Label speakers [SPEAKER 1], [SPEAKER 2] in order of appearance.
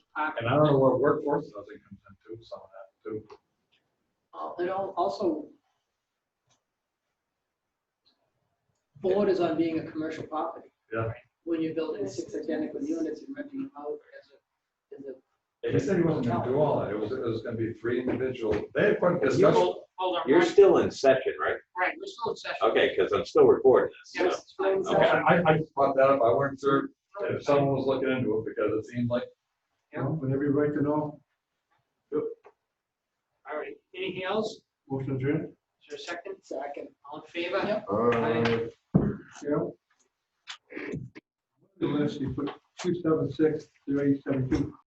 [SPEAKER 1] I-
[SPEAKER 2] And I don't know where workforce housing comes into some of that too.
[SPEAKER 1] Uh, It al- also borders on being a commercial property.
[SPEAKER 2] Yeah.
[SPEAKER 1] When you're building six identical units and renting them out as a, as a,
[SPEAKER 2] He said he wasn't gonna do all that. It was, it was gonna be three individual, they had quite a discussion.
[SPEAKER 3] Hold hold on,
[SPEAKER 4] You're
[SPEAKER 3] right,
[SPEAKER 4] still in session, right?
[SPEAKER 3] right, we're still in session.
[SPEAKER 4] Okay, because I'm still recording this. so-
[SPEAKER 3] Yes, it's fine.
[SPEAKER 1] Okay.
[SPEAKER 2] I, I- I just brought that up. I weren't sure if someone was looking into it because it seemed like,
[SPEAKER 3] Yeah.
[SPEAKER 5] Well, Whenever you right to know,
[SPEAKER 3] All right, anything else?
[SPEAKER 5] motion adjourned.
[SPEAKER 3] Is there a second?
[SPEAKER 1] so I can,
[SPEAKER 3] All in favor?
[SPEAKER 1] Yep.
[SPEAKER 5] Cheryl? Unless you put two seven six zero eight seven two.